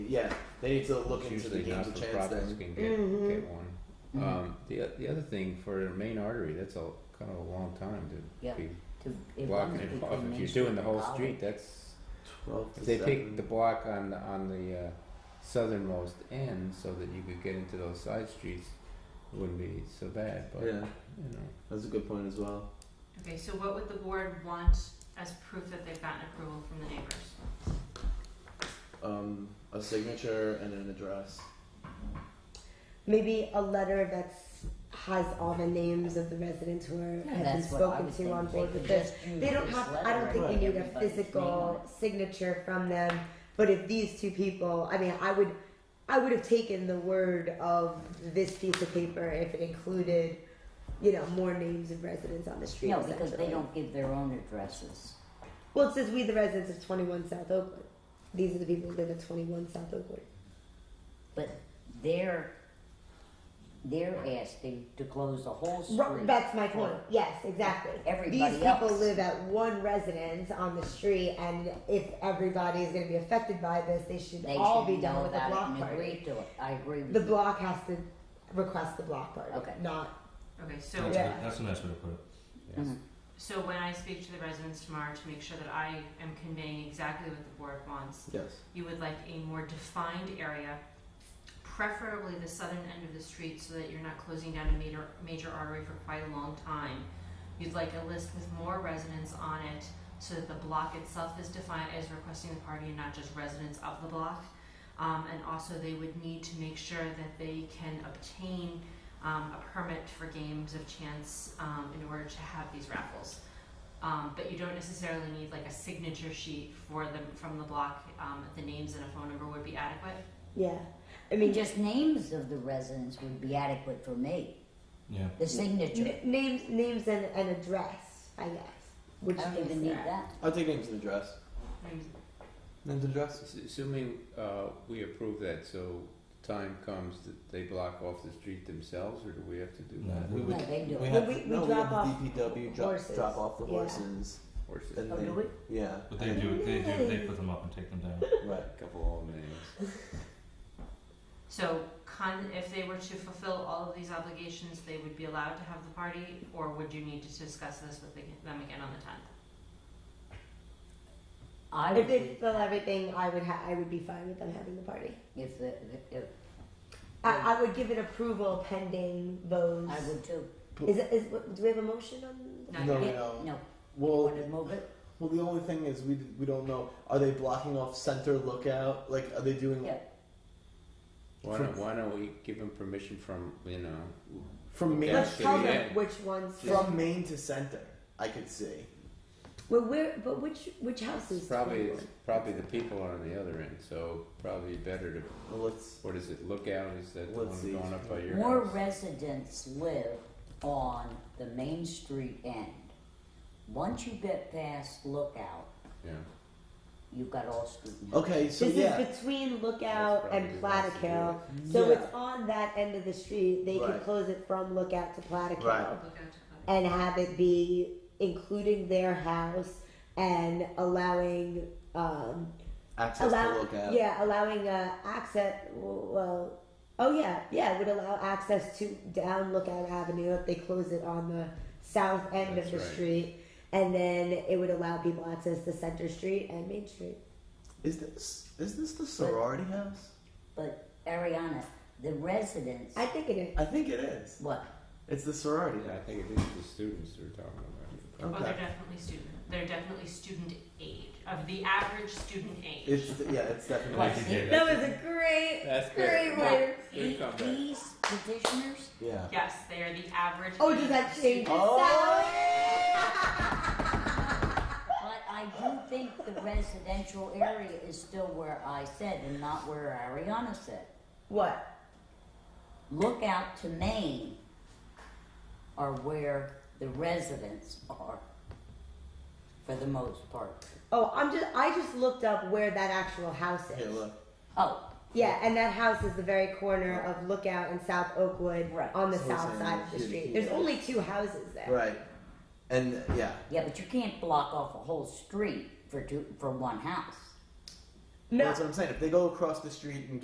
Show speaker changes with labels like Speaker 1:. Speaker 1: yeah, they need to look
Speaker 2: It's
Speaker 1: into the
Speaker 2: usually
Speaker 1: games
Speaker 2: not
Speaker 1: of
Speaker 2: for
Speaker 1: chance
Speaker 2: profits
Speaker 1: then.
Speaker 2: can get,
Speaker 3: Mhm.
Speaker 2: get one. Um, the o- the other thing for a main artery, that's a kind of a long time to
Speaker 3: Yeah.
Speaker 2: be
Speaker 3: To, it
Speaker 2: blocking
Speaker 3: runs
Speaker 2: it
Speaker 3: between
Speaker 2: off. If
Speaker 3: Main
Speaker 2: you're
Speaker 3: Street
Speaker 2: doing the
Speaker 3: and
Speaker 2: whole
Speaker 3: College.
Speaker 2: street, that's
Speaker 1: Twelve.
Speaker 2: if
Speaker 1: to
Speaker 2: they
Speaker 1: seven.
Speaker 2: picked the block on the, on the uh, southernmost end so that you could get into those side streets, it wouldn't be so bad. But
Speaker 1: Yeah,
Speaker 2: you know,
Speaker 1: that's a good point as well.
Speaker 4: Okay, so what would the board want as proof that they've gotten approval from the neighbors?
Speaker 1: Um, a signature and an address.
Speaker 5: Maybe a letter that's has all the names of the residents who are,
Speaker 3: Yeah,
Speaker 5: have been
Speaker 3: that's what I
Speaker 5: spoken
Speaker 3: was
Speaker 5: to on
Speaker 3: thinking.
Speaker 5: board
Speaker 3: They
Speaker 5: with
Speaker 3: could
Speaker 5: this.
Speaker 3: just use
Speaker 5: They don't
Speaker 3: this
Speaker 5: have. I
Speaker 3: letter
Speaker 5: don't
Speaker 3: and
Speaker 5: think we
Speaker 3: put
Speaker 5: need a
Speaker 3: everybody's name on
Speaker 5: physical
Speaker 3: it.
Speaker 5: signature from them. But if these two people, I mean, I would, I would have taken the word of this piece of paper if it included, you know, more names of residents on the street.
Speaker 3: No, because they
Speaker 5: essentially.
Speaker 3: don't give their own addresses.
Speaker 5: Well, it says we, the residents of 21 South Oakland. These are the people who live at 21 South Oakland.
Speaker 3: But they're, they're asking to close the whole
Speaker 5: Ru-
Speaker 3: street.
Speaker 5: That's my point. Yes, exactly.
Speaker 3: Everybody
Speaker 5: These people
Speaker 3: else.
Speaker 5: live at one residence on the street, and if everybody is going to be affected by this, they should
Speaker 3: They
Speaker 5: all
Speaker 3: should
Speaker 5: be done
Speaker 3: know
Speaker 5: with the
Speaker 3: about it
Speaker 5: block
Speaker 3: and agree
Speaker 5: party.
Speaker 3: to it. I agree with
Speaker 5: The
Speaker 3: you.
Speaker 5: block has to request the block party.
Speaker 3: Okay.
Speaker 5: Not
Speaker 4: Okay, so
Speaker 6: That's,
Speaker 5: Yeah.
Speaker 6: a, that's a nice way to put it.
Speaker 2: yes.
Speaker 3: Mhm.
Speaker 4: so when I speak to the residents tomorrow to make sure that I am conveying exactly what the board wants,
Speaker 1: Yes.
Speaker 4: you would like a more defined area, preferably the southern end of the street so that you're not closing down a major, major artery for quite a long time. You'd like a list with more residents on it so that the block itself is defined as requesting the party and not just residents of the block. Um, and also they would need to make sure that they can obtain um, a permit for games of chance um, in order to have these raffles. Um, but you don't necessarily need like a signature sheet for them from the block. Um, the names and a phone number would be adequate.
Speaker 5: yeah. I
Speaker 3: I mean,
Speaker 5: mean,
Speaker 3: just names of the residents would be adequate for me.
Speaker 6: Yeah.
Speaker 3: The signature,
Speaker 5: n- names, names, and an address. I guess. Which
Speaker 3: I don't
Speaker 5: is
Speaker 3: even need
Speaker 5: there.
Speaker 3: that.
Speaker 1: I'll take names and address.
Speaker 5: Mm-hmm.
Speaker 4: Names-
Speaker 1: Names and address.
Speaker 2: Ass- Assuming uh, we approve that, so time comes that they block off the street themselves, or do we have to do
Speaker 6: No,
Speaker 2: that?
Speaker 6: we
Speaker 3: No,
Speaker 6: would,
Speaker 3: they do
Speaker 1: We
Speaker 3: it.
Speaker 1: have
Speaker 5: we- we
Speaker 1: no,
Speaker 5: drop
Speaker 1: we have
Speaker 5: off
Speaker 1: the DPW drop,
Speaker 5: horses.
Speaker 1: drop off the
Speaker 5: Yeah.
Speaker 1: horses.
Speaker 2: Or is it
Speaker 1: And
Speaker 3: Oh,
Speaker 1: they,
Speaker 3: do we?
Speaker 1: Yeah.
Speaker 6: but they do. They do. They put them up and take them down.
Speaker 1: Right.
Speaker 2: a couple of names?
Speaker 4: So, con- if they were to fulfill all of these obligations, they would be allowed to have the party, or would you need to discuss this with the, them again on the tenth?
Speaker 3: I
Speaker 5: If
Speaker 3: would,
Speaker 5: they
Speaker 3: be-
Speaker 5: fill everything, I would ha- I would be fine with them having the party.
Speaker 3: if, the- if,
Speaker 5: I, I would give it approval pending those.
Speaker 3: I would too.
Speaker 5: Is, it- is do we have a motion on?
Speaker 4: Oh,
Speaker 1: No,
Speaker 4: No, you-
Speaker 1: we don't.
Speaker 3: No,
Speaker 1: Well,
Speaker 3: want to move it?
Speaker 1: well, the only thing is we we don't know. Are they blocking off center lookout? Like, are they doing
Speaker 3: Yeah.
Speaker 2: Why
Speaker 1: From-
Speaker 2: don't, why don't we give them permission from, you know,
Speaker 1: from main
Speaker 2: Yeah,
Speaker 5: Let's
Speaker 2: so
Speaker 1: street
Speaker 5: tell
Speaker 2: yeah.
Speaker 5: them which ones.
Speaker 1: from main to center? I could see.
Speaker 5: Well, where? But which which houses?
Speaker 2: probably, probably the people are on the other end, so probably better to,
Speaker 1: Well, let's.
Speaker 2: what is it, lookout, is that the
Speaker 1: Let's
Speaker 2: one
Speaker 1: see.
Speaker 2: going up by your
Speaker 3: More
Speaker 2: house?
Speaker 3: residents live on the Main Street end. Once you get past Lookout,
Speaker 2: Yeah,
Speaker 3: you've got all student.
Speaker 1: Okay, so
Speaker 5: This
Speaker 1: yeah.
Speaker 5: is between Lookout
Speaker 2: That's
Speaker 5: and
Speaker 2: probably the
Speaker 5: Platicale,
Speaker 2: last
Speaker 5: so
Speaker 1: Yeah.
Speaker 5: it's on that end of the street. They can
Speaker 1: Right.
Speaker 5: close it from Lookout to Platicale
Speaker 1: Right.
Speaker 4: Look out to the-
Speaker 5: and have it be including their house and allowing um,
Speaker 1: access
Speaker 5: allow,
Speaker 1: to lookout.
Speaker 5: yeah, allowing uh, access. Well, oh yeah, yeah, it would allow access to down Lookout Avenue if they close it on the south end
Speaker 2: That's
Speaker 5: of the
Speaker 2: right.
Speaker 5: street, and then it would allow people access to Center Street and Main Street.
Speaker 1: Is this is this the sorority house?
Speaker 3: But Ariana, the residents,
Speaker 5: I think it is.
Speaker 1: I think it is.
Speaker 3: what?
Speaker 1: It's the sorority
Speaker 2: Yeah, I
Speaker 1: house.
Speaker 2: think it is the students we're talking about.
Speaker 4: Oh, they're
Speaker 1: Okay.
Speaker 4: definitely student. They're definitely student age of the average student age.
Speaker 1: It's yeah. It's definitely.
Speaker 6: Like you did.
Speaker 5: That was a great,
Speaker 2: That's
Speaker 5: great
Speaker 2: great.
Speaker 5: way.
Speaker 2: Good comeback.
Speaker 3: These petitioners,
Speaker 1: Yeah.
Speaker 4: yes, they are the average.
Speaker 5: Oh, does that change? the
Speaker 1: Oh.
Speaker 3: but I do think the residential area is still where I said and not where Ariana said.
Speaker 5: What?
Speaker 3: Look out to Maine are where the residents are, for the most part.
Speaker 5: Oh, I'm just. I just looked up where that actual house is.
Speaker 1: Here, look.
Speaker 3: Oh,
Speaker 5: Yeah, and that house is the very corner of Lookout and South Oakwood
Speaker 3: Right.
Speaker 5: on the
Speaker 1: So
Speaker 5: south
Speaker 1: it's in
Speaker 5: side of the
Speaker 1: here,
Speaker 5: street.
Speaker 1: here.
Speaker 5: There's only two houses there.
Speaker 1: Right. And yeah.
Speaker 3: yeah, but you can't block off a whole street for two, for one house.
Speaker 1: But
Speaker 5: No,
Speaker 1: That's what I'm saying. If they go across the street and